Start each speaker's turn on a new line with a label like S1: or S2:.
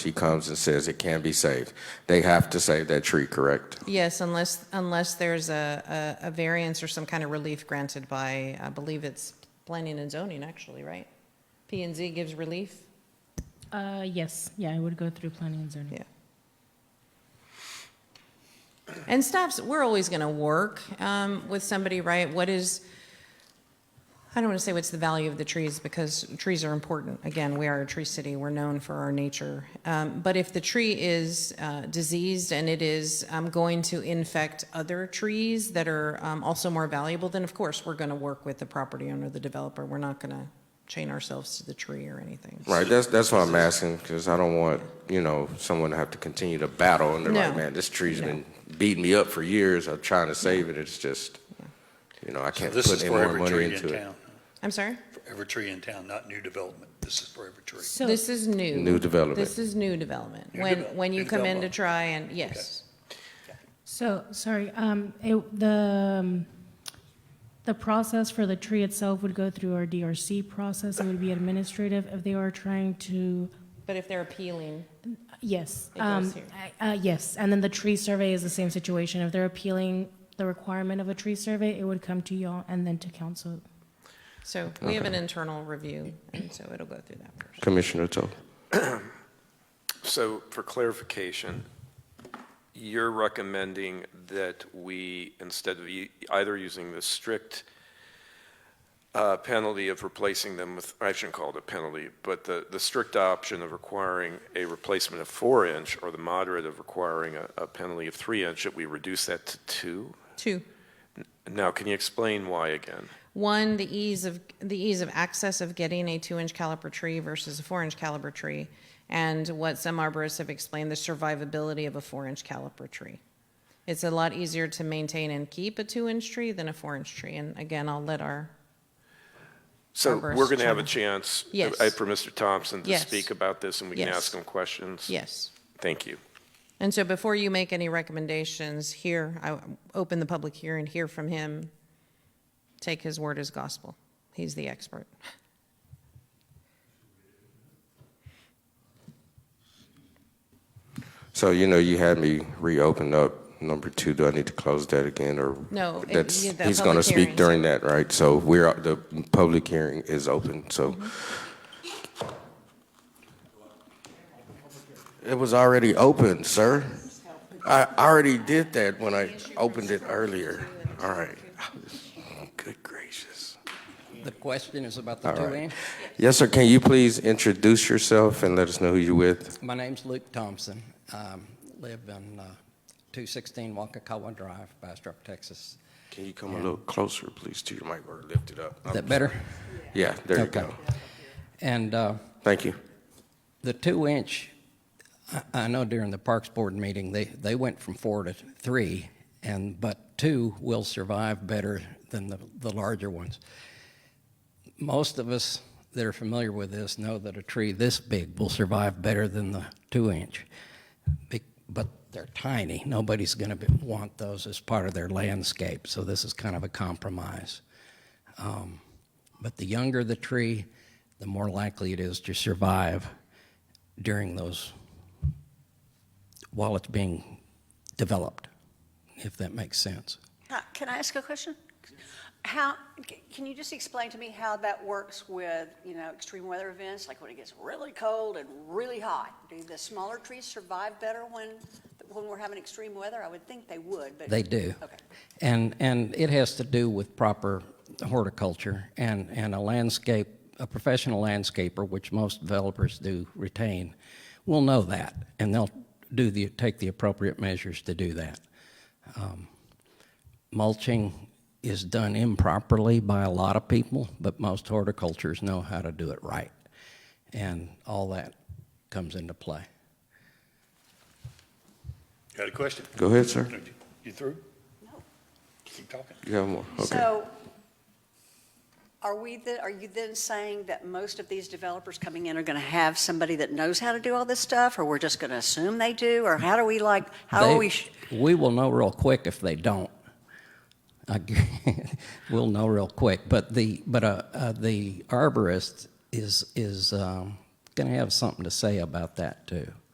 S1: she comes and says it can be saved. They have to save that tree, correct?
S2: Yes, unless, unless there's a, a a variance or some kind of relief granted by, I believe it's planning and zoning, actually, right? P and Z gives relief?
S3: Uh, yes, yeah, I would go through planning and zoning.
S2: Yeah. And staffs, we're always going to work um, with somebody, right? What is, I don't want to say what's the value of the trees because trees are important. Again, we are a tree city. We're known for our nature. Um, But if the tree is uh, diseased and it is um, going to infect other trees that are um, also more valuable, then of course, we're going to work with the property owner, the developer. We're not going to chain ourselves to the tree or anything.
S1: Right, that's, that's what I'm asking, because I don't want, you know, someone to have to continue to battle, and they're like,
S2: No.
S1: man, this tree's been beating me up for years, I'm trying to save it, it's just, you know, I can't
S4: This
S1: put
S4: is
S1: any
S4: for
S1: more
S4: every
S1: money
S4: tree in
S1: into it.
S4: town,
S2: I'm sorry?
S4: For every tree in town, not new development. This is for every tree.
S3: So,
S2: This is new.
S1: New development.
S2: This is new development.
S4: New
S2: When,
S4: develop-
S2: when you
S4: new
S2: come in to
S4: development.
S2: try and, yes.
S3: so, sorry, um, it, the, um, the process for the tree itself would go through our DRC process. It would be administrative if they are trying to,
S2: But if they're appealing,
S3: yes.
S2: It goes
S3: um,
S2: here.
S3: I- Uh, yes, and then the tree survey is the same situation. If they're appealing the requirement of a tree survey, it would come to y'all and then to council.
S2: so we have an internal review, and so it'll go through that first.
S1: Commissioner Toth.
S5: So for clarification, you're recommending that we, instead of e- either using the strict uh, penalty of replacing them with, I shouldn't call it a penalty, but the, the strict option of requiring a replacement of four inch or the moderate of requiring a, a penalty of three inch, that we reduce that to two?
S2: Two,
S5: Now, can you explain why again?
S2: one, the ease of, the ease of access of getting a two-inch caliper tree versus a four-inch caliper tree, and what some arborists have explained, the survivability of a four-inch caliper tree. It's a lot easier to maintain and keep a two-inch tree than a four-inch tree, and again, I'll let our
S5: So
S2: Arborist
S5: we're going to have a
S2: Turner.
S5: chance
S2: Yes.
S5: uh, for Mr. Thompson to
S2: Yes.
S5: speak about this, and we can
S2: Yes.
S5: ask him questions?
S2: Yes.
S5: Thank you.
S2: And so before you make any recommendations here, I open the public hearing, hear from him, take his word as gospel. He's the expert.
S1: So, you know, you had me reopen up number two, do I need to close that again, or?
S2: No, it-
S1: That's,
S2: yeah, the
S1: he's gonna
S2: public
S1: speak
S2: hearing.
S1: during that, right? So we're, uh, the public hearing is open, so. It was already open, sir. I already did that when I opened it earlier. All right. Good gracious.
S6: The question is about the
S1: All
S6: two
S1: right.
S6: inch.
S1: Yes, sir, can you please introduce yourself and let us know who you're with?
S6: My name's Luke Thompson. Um, Live in uh, 216 Wakakawa Drive, Bastrop, Texas.
S1: Can you come a little closer, please, to your mic or lift it up?
S6: Is that better?
S1: Yeah, there you
S6: Okay.
S1: go.
S6: And uh,
S1: Thank you.
S6: the two inch, I- I know during the Parks Board meeting, they, they went from four to three, and, but two will survive better than the, the larger ones. Most of us that are familiar with this know that a tree this big will survive better than the two inch. Be- But they're tiny. Nobody's going to want those as part of their landscape, so this is kind of a compromise. Um, But the younger the tree, the more likely it is to survive during those, while it's being developed, if that makes sense.
S7: Uh, Can I ask a question? How, c- can you just explain to me how that works with, you know, extreme weather events, like when it gets really cold and really hot? Do the smaller trees survive better when, when we're having extreme weather? I would think they would, but.
S6: They do.
S7: Okay.
S6: And, and it has to do with proper horticulture and, and a landscape, a professional landscaper, which most developers do retain, will know that, and they'll do the, take the appropriate measures to do that. Um, Mulching is done improperly by a lot of people, but most horticultures know how to do it right. And all that comes into play.
S4: Got a question?
S1: Go ahead, sir.
S4: You through?
S7: No.
S4: Keep talking.
S1: You have more? Okay.
S7: So are we, the- are you then saying that most of these developers coming in are going to have somebody that knows how to do all this stuff? Or we're just going to assume they do? Or how do we like, how
S6: They-
S7: are we? sh-
S6: We will know real quick if they don't. I gu- we'll know real quick, but the, but, uh, uh, the arborist is, is, um, gonna have something to say about that too.